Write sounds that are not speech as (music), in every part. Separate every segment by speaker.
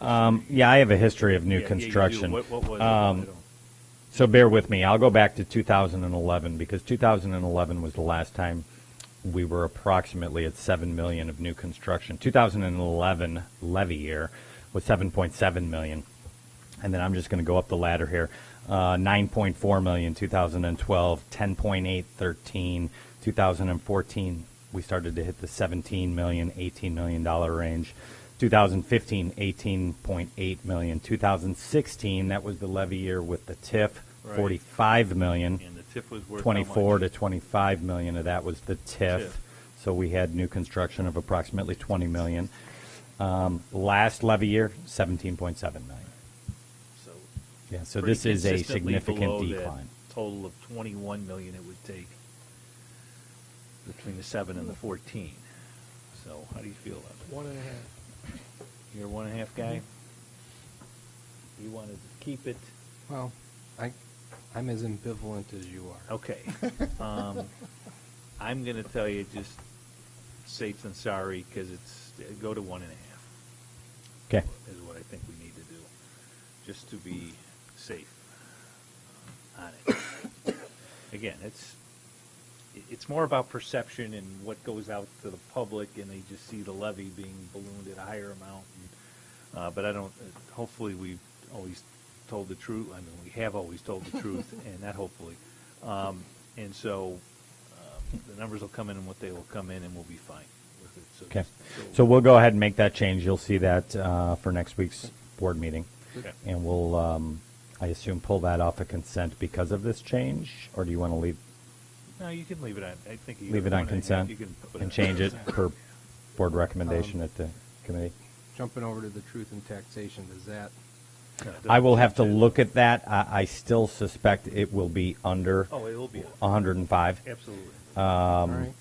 Speaker 1: Um, yeah, I have a history of new
Speaker 2: Yeah, yeah, you do.
Speaker 1: construction.
Speaker 2: What, what was it? I
Speaker 1: Um,
Speaker 2: don't-
Speaker 1: So bear with me. I'll go back to 2011 because 2011 was the last time we were approximately at 7 million of new construction. 2011 levy year was 7.7 million. And then I'm just going to go up the ladder here. Uh, 9.4 million 2012, 10.8 13, 2014 we started to hit the 17 million, 18 million dollar range. 2015, 18.8 million. 2016, that was the levy year with the TIF,
Speaker 2: Right.
Speaker 1: 45 million.
Speaker 2: And the TIF was worth how much?
Speaker 1: 24 to 25 million of that was the TIF.
Speaker 2: TIF.
Speaker 1: So we had new construction of approximately 20 million. Um, last levy year, 17.7 million.
Speaker 2: So
Speaker 1: Yeah, so
Speaker 2: pretty
Speaker 1: this is a
Speaker 2: consistently below
Speaker 1: significant
Speaker 2: that
Speaker 1: decline.
Speaker 2: Total of 21 million it would take between the 7 and the 14. So how do you feel about it?
Speaker 3: One and a half.
Speaker 2: You're a one and a half guy?
Speaker 1: Mm-hmm.
Speaker 2: You wanted to keep it?
Speaker 3: Well, I, I'm as ambivalent as you
Speaker 1: (laughs)
Speaker 3: are.
Speaker 2: Okay. Um, I'm going to tell you just safe and sorry because it's go to one and a half.
Speaker 1: Okay.
Speaker 2: is what I think we need to do, just to be safe on it. Again, it's, it- it's more about perception and what goes out to the public, and they just see the levy being ballooned at a higher amount. and, uh, But I don't, hopefully, we've always told the truth, I mean, we have always told the truth, and not hopefully. Um, And so, um, the numbers will come in and what they will come in, and we'll be fine with it. So
Speaker 1: Okay.
Speaker 2: just-
Speaker 1: So we'll go ahead and make that change. You'll see that uh, for next week's board meeting.
Speaker 2: Okay.
Speaker 1: And we'll, um, I assume, pull that off a consent because of this change? Or do you want to leave,
Speaker 2: No, you can leave it on, I think. you
Speaker 1: leave it
Speaker 2: can
Speaker 1: on
Speaker 2: put
Speaker 1: consent
Speaker 2: you can put on
Speaker 1: and change it
Speaker 2: consent. Um,
Speaker 1: per board recommendation at the committee?
Speaker 3: Jumping over to the truth and taxation, does that,
Speaker 2: No, it
Speaker 1: I will have to
Speaker 2: doesn't-
Speaker 1: look at that. I, I still suspect it will be under
Speaker 2: Oh, it will be,
Speaker 1: 105.
Speaker 2: absolutely.
Speaker 1: Uh,
Speaker 2: Um,
Speaker 3: all right?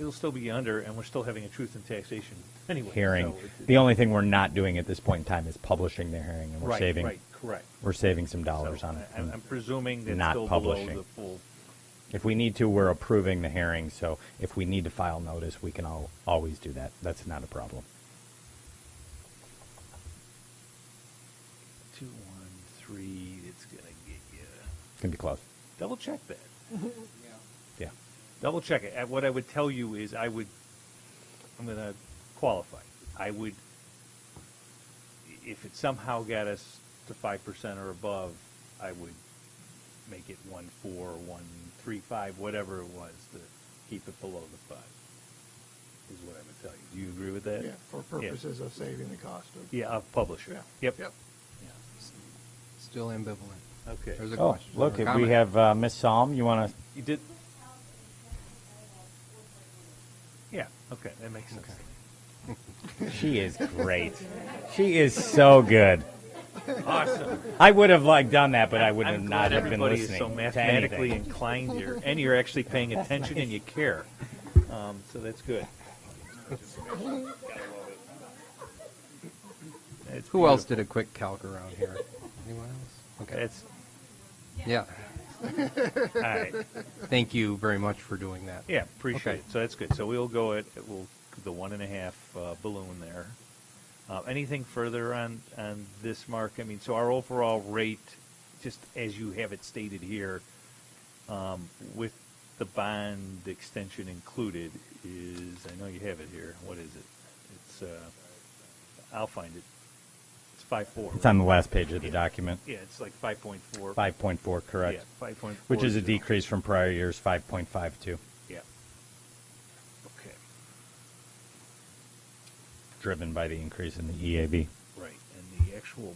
Speaker 2: It'll still be under, and we're still having a truth and taxation anyway.
Speaker 1: Hearing.
Speaker 2: so it-
Speaker 1: The only thing we're not doing at this point in time is publishing the hearing, and we're
Speaker 2: Right,
Speaker 1: saving,
Speaker 2: Right, correct.
Speaker 1: we're saving some
Speaker 2: So
Speaker 1: dollars on it.
Speaker 2: I- I'm I'm presuming that's
Speaker 1: not
Speaker 2: still below
Speaker 1: publishing.
Speaker 2: the full,
Speaker 1: If we need to, we're approving the hearing, so if we need to file notice, we can al- always do that. That's not a problem.
Speaker 2: two, one, three, it's gonna get you.
Speaker 1: It's gonna be close.
Speaker 2: Double check that.
Speaker 1: Yeah.
Speaker 2: Double check it. And What I would tell you is I would, I'm going to qualify. I would, if it somehow got us to 5% or above, I would make it 1.4, 1.35, whatever it was to keep it below the 5 is what I would tell you. Do you agree with that?
Speaker 4: Yeah, for purposes of saving the cost of.
Speaker 2: Yeah, of publisher.
Speaker 4: Yeah.
Speaker 2: Yep.
Speaker 4: Yep.
Speaker 2: Yeah.
Speaker 3: Still ambivalent.
Speaker 2: Okay.
Speaker 3: There's a
Speaker 1: Oh,
Speaker 3: question.
Speaker 1: look,
Speaker 3: or a
Speaker 1: we
Speaker 3: comment.
Speaker 1: have uh, Miss Psalm. You want to?
Speaker 2: You did? Yeah, okay, that makes sense.
Speaker 1: She is great. she is so good.
Speaker 2: Awesome.
Speaker 1: I would have like done that, but I would
Speaker 2: I'm
Speaker 1: have
Speaker 2: glad
Speaker 1: not have been
Speaker 2: everybody is
Speaker 1: listening.
Speaker 2: so
Speaker 1: to
Speaker 2: mathematically
Speaker 1: anything.
Speaker 2: inclined here, and you're actually paying attention and you care. Um, so that's good. That's
Speaker 3: Who else
Speaker 2: beautiful.
Speaker 3: did a quick calc around
Speaker 2: (laughs)
Speaker 3: here? Anyone else? Okay.
Speaker 2: That's
Speaker 3: Yeah.
Speaker 2: all right.
Speaker 3: Thank you very much for doing that.
Speaker 2: Yeah, appreciate
Speaker 3: Okay.
Speaker 2: it. So that's good. So we'll go at we'll the one and a half uh, balloon there. Uh, anything further on on this mark? I mean, so our overall rate, just as you have it stated here, um, with the bond extension included, is I know you have it here. What is it? It's uh, I'll find it. It's five four.
Speaker 1: It's on the last page of the document.
Speaker 2: Yeah, it's like five point four.
Speaker 1: Five point four, correct?
Speaker 2: Yeah, five point four.
Speaker 1: Which is a decrease from prior year's five point five two,
Speaker 2: Yeah. Okay.
Speaker 1: driven by the increase in the E EAV.
Speaker 2: Right, and the actual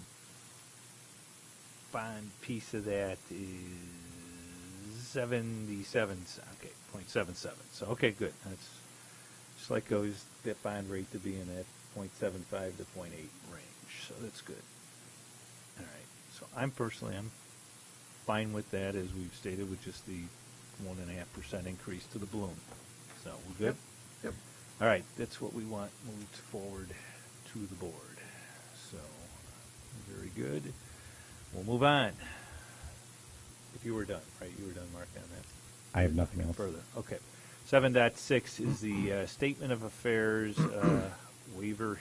Speaker 2: bond piece of that is seventy-seven, c- okay, point seven seven, so, okay, good, that's, just like goes, that bond rate to be in that point seven five to point eight range, so that's good. All right, so I'm personally, I'm fine with that, as we've stated, with just the one and a half percent increase to the balloon, so, we're good?
Speaker 4: Yep.
Speaker 2: All right, that's what we want moved forward to the board. So, very good. We'll move on. If you were done, right, you were done, Mark, on that.
Speaker 1: I have nothing else.
Speaker 2: Further, okay. Seven point six is the uh, statement of affairs uh, waiver